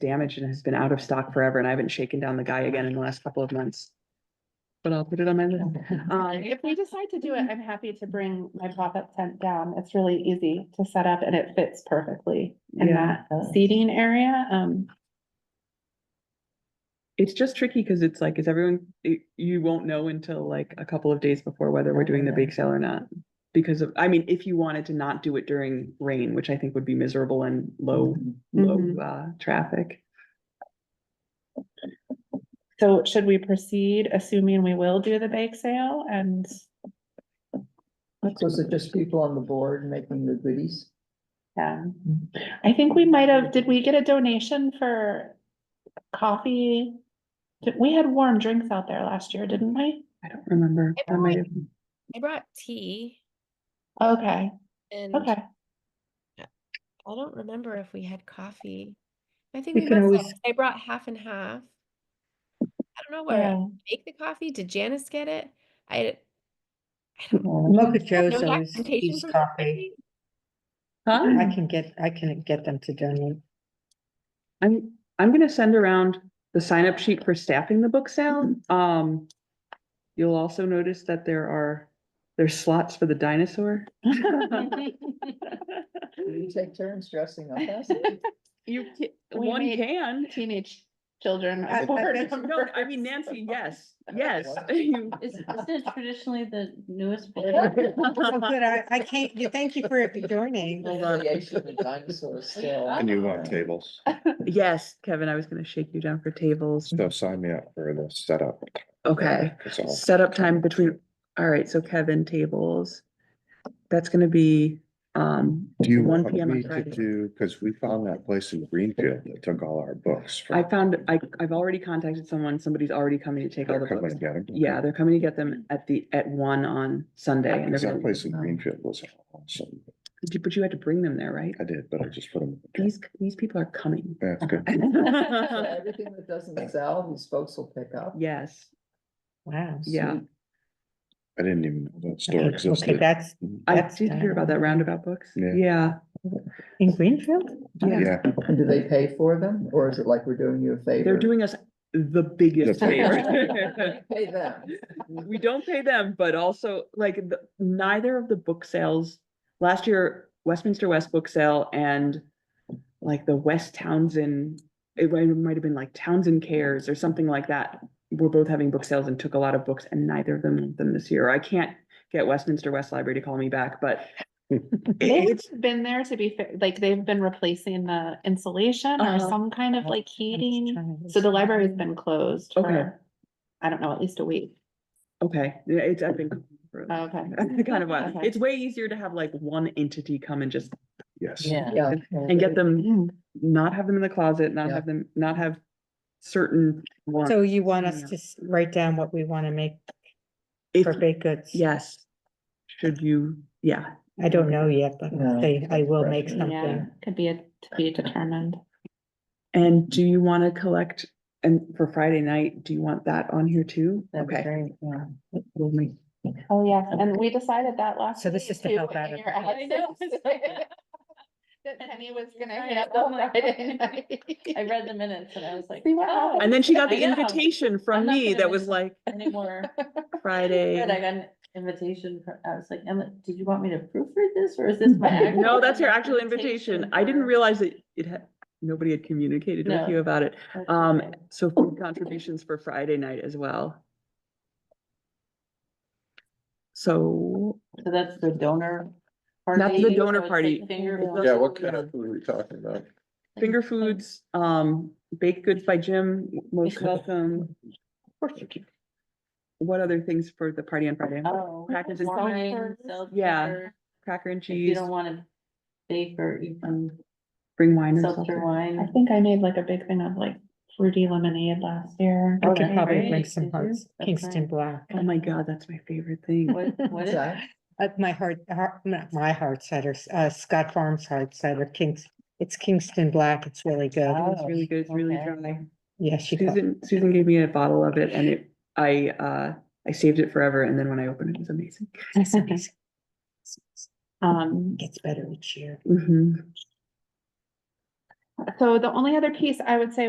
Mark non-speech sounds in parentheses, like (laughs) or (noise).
damaged and has been out of stock forever and I haven't shaken down the guy again in the last couple of months. But I'll put it on my list. Um, If we decide to do it, I'm happy to bring my pop-up tent down. It's really easy to set up and it fits perfectly in Yeah. that seating area. Um, It's just tricky because it's like, is everyone, it- you won't know until like a couple of days before whether we're doing the bake sale or not. Because of, I mean, if you wanted to not do it during rain, which I think would be miserable and low, low Mhm. uh traffic. so should we proceed, assuming we will do the bake sale and? Was it just people on the board making the goodies? Um, I think we might have, did we get a donation for coffee? Did- We had warm drinks out there last year, didn't we? I don't remember. I That don't might like- have- I brought tea Okay, and I okay. don't remember if we had coffee. I think We we can must always- have. I brought half and half. I don't know where I Yeah. make the coffee. Did Janice get it? I I don't know. No Mocha Joe's always documentation use for this, I coffee. think. Huh? I can get, I can get them to donate. I'm, I'm gonna send around the sign up sheet for staffing the book sale. Um. You'll also notice that there are, there's slots for the dinosaur. (laughs) You take turns dressing up as You, ca- We one made- (laughs) can. Teenage children. I- I- are (laughs) board No, I mean, members. Nancy, yes, (laughs) (laughs) yes. (laughs) You- Is, isn't it traditionally the (laughs) newest? bid? So good, I, I can't, you, thank you for joining. Hold on. Dinosaurs still. And you uh, want tables, Yes, Kevin, I was gonna shake you down for tables. so sign me up for the setup. Okay, That's all. setup time between, all right, so Kevin, tables. That's gonna be, um, Do you one want PM on me to Friday. do, because we found that place in Greenfield that took all our books. from- I found, I, I've already contacted someone, somebody's already coming to take all They're the coming books. to get 'em. Yeah, they're coming to get them Mm. at the, at one on Sunday. and they're Because that gonna- place in Greenfield was awesome. But you- but you had to bring them there, right? I did, but I just put them. These, these people are (laughs) coming. That's good. Everything that doesn't sell, these folks will pick up. Yes, Wow. yeah. I didn't even know that store Okay, Okay, existed. that's I That's did hear about that roundabout books. Yeah. Yeah. in Greenfield? Yeah, And do they pay for them or is it like we're doing you a favor? They're doing us the biggest The biggest. favor. (laughs) (laughs) Pay them. We don't pay them, but also like the- neither of the book sales, last year Westminster West Book Sale and like the West Townsend, it might- it might have been like Townsend Cares or something like that. We're both having book sales and took a lot of books and neither of them went them this year. I can't get Westminster West Library to call me back, but They've it's, been there to be fair, like they've been replacing the insulation or Uh-huh. some kind of like I'm just heating. trying to- So the library's been closed Okay. for, I don't know, at least a week. Oh, okay, yeah, it's, I've been. for a- (laughs) Okay. (laughs) Kind of, a- Okay. it's way easier to have like one entity come and just yes. Yeah. and get them, Mm. not have them in the closet, not Yeah. have them, not have certain ones. So you want us Yeah. to s- write down what we want to make If- for baked goods? Yes. Should you, yeah, I don't know yet, but No, I, I will make depression. Yeah, something. could be a, to be determined. and do you wanna collect, and for Friday night, do you want that on here too? Okay. We'll make- Oh, yeah, and we decided that last. So this week is to too, help when out your everybody. ad I know, says it's- (laughs) That Penny was gonna I hit up know, on like- Friday (laughs) night. I read the minutes and I (laughs) was like. See what "Oh, happened." And then she got the I know. invitation I'm from not me gonna that was miss (laughs) like (laughs) Anymore. But I Friday. got an invitation, for- I was like, Emma, did you want me to proofread this or is this my? (laughs) actual (laughs) No, that's your actual invitation. I didn't or- realize that it had, nobody had communicated No. with you about it. That's Um, okay. so food contributions for Friday night as well. So So that's the donor. That's the party, donor so it's party. like finger Yeah, foods. food are we talking about? finger foods, um, baked goods by Jim, most welcome. What other things for the party on Friday? Oh, Crackers and- wine, seltzer. Yeah. Cracker and If you cheese, don't want to bake or eat um, bring wine or seltzer something. I wine. think I made like a big thing of like fruity lemonade last year. I Oh, could that's probably great. make some Mhm, Did you? hearts, That's Kingston nice. Black. Oh my god, that's my favorite thing. What, (laughs) what What's is? that? Uh, my heart, heart, not my heart cider, uh, Scott Farms heart cider, Kings, it's Kingston Black, it's really good. Oh, It's really good, it's really okay. dry. Yeah, she, got- Susan, Susan gave me a bottle of it and it, I, uh, I saved it forever and then when I opened it, it was amazing. it's amazing. Um, Mm-hmm. Gets better each year. hmm So the only other piece I would say